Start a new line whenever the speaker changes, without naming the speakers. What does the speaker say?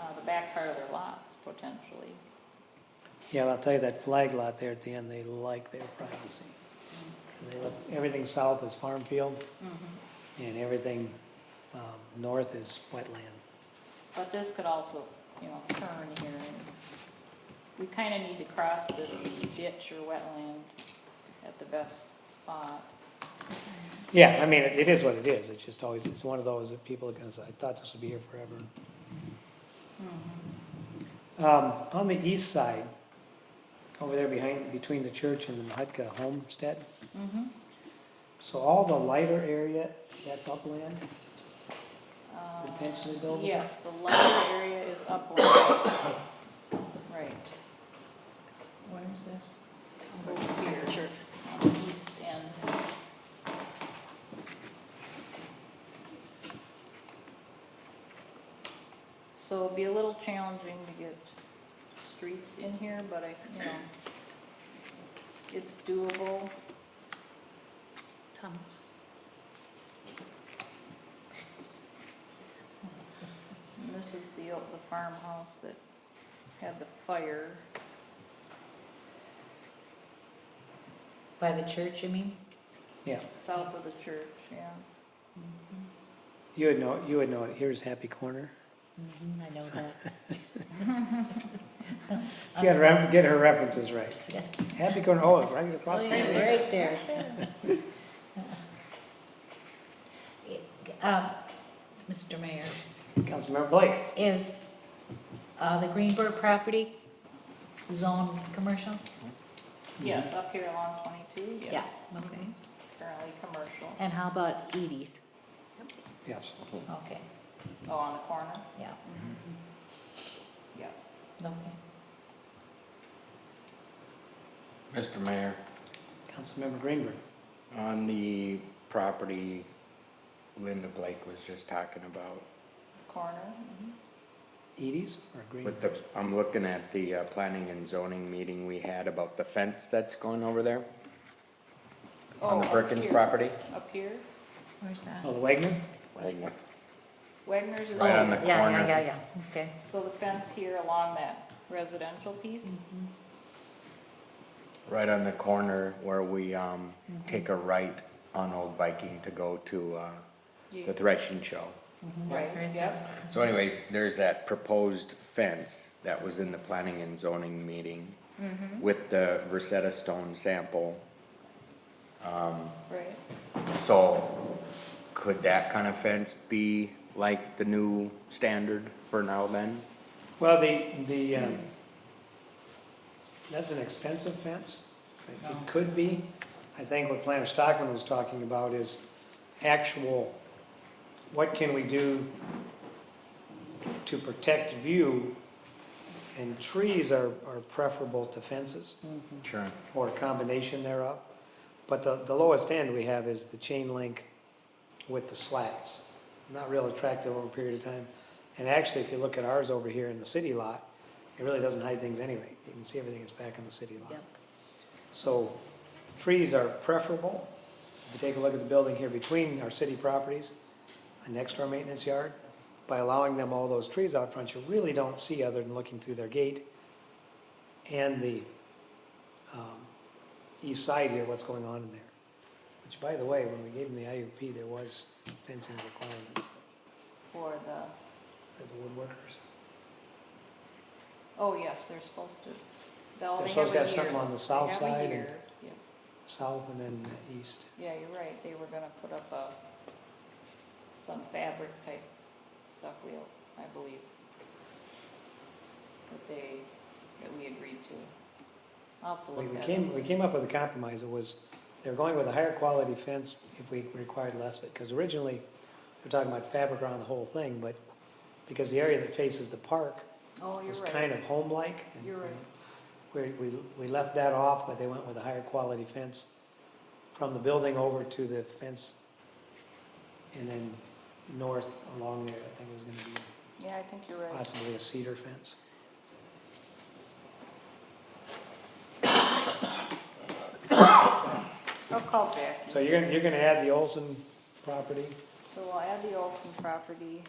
uh, back part of their lots potentially.
Yeah, I'll tell you, that flag lot there at the end, they like their privacy. 'Cause they look, everything south is farm field, and everything, um, north is wetland.
But this could also, you know, turn here and we kind of need to cross this ditch or wetland at the best spot.
Yeah, I mean, it it is what it is, it's just always, it's one of those that people are gonna say, I thought this would be here forever. Um, on the east side, over there behind, between the church and the Hutka homestead,
Mm-hmm.
so all the lighter area, that's upland? Potentially buildable?
Um, Yes, the lighter area is upland. Right,
Where is this?
over here. On the east end. So it'll be a little challenging to get streets in here, but I, you know, it's doable.
Thomas.
And This is the, old- the farmhouse that had the fire.
By the church, you mean?
Yeah,
South of the church, yeah.
you would know, you would know, it. here's Happy Corner.
Mm-hmm, I know that.
She had, ref- get her references right.
Yeah.
Happy Corner, oh, it's right across the
Oh, yeah.
street.
Right there. Um, Mr. Mayor,
Councilmember Blake.
is uh, the Greenberg property zone commercial?
Yes, up here along twenty-two, yes.
Yeah, okay.
Currently commercial,
And how about Edie's?
Yes.
Okay,
oh, on the corner, Mm-hmm. yes.
yeah, okay.
Mr. Mayor,
Mm-hmm. Councilmember Greenberg.
on the property Linda Blake was just talking about,
Corner, mhm.
Edie's or Greenberg?
with the, I'm looking at the uh, planning and zoning meeting we had about the fence that's going over there on
Oh,
the
up
Perkins
here,
property.
Up here,
Where's that?
Oh, the Wegman?
Wagner's is,
Right on
over.
the
Yeah,
corner.
yeah, yeah, yeah, okay.
so the fence here along that residential piece,
Mm. Mm-hmm.
Right on the corner where we, um, take a right on Old Viking to go to, uh,
You-
the threshing show.
right, yep.
So anyways, there's that proposed fence that was in the planning and zoning meeting
Mm-hmm.
with the Versetta stone sample.
Right,
So could that kind of fence be like the new standard for now then?
Well, the, the, um, that's an expensive fence. It- It could be. I think what Planner Stockman was talking about is actual, what can we do to protect view? And trees are, are preferable to fences.
Sure.
or a combination thereof. But the, the lowest end we have is the chain link with the slats. Not real attractive over a period of time. And actually, if you look at ours over here in the city lot, it really doesn't hide things anyway. You can see everything that's back in the city lot.
Yep.
So trees are preferable. If you take a look at the building here between our city properties and next to our maintenance yard, by allowing them all those trees out front, you really don't see other than looking through their gate and the um, east side here, what's going on in there. Which, by the way, when we gave them the IUP, there was fencing requirements
for the,
for the woodworkers.
oh, yes, they're supposed to. They'll-
They're
Oh, they
supposed to
a
have something
year.
on the south
They have a
side and
year. Yeah.
south and then the east.
Yeah, you're right, they were gonna put up a, some fabric type stuff wheel, I believe. That they, that we agreed to. I'll have to
We
look
we
that up.
came, we came up with a compromise, it was, they're going with a higher quality fence if we required less of it, because originally, we're talking about fabric around the whole thing, but because the area that faces the park
Oh, you're
was kind
right,
of home-like. and-
you're right,
We, we, we left that off, but they went with a higher quality fence from the building over to the fence and then north along there, I think it was gonna be
yeah, I think you're right.
possibly a cedar fence.
I'll call Jackie.
So you're gonna, you're gonna add the Olson property,
So we'll add the Olson property,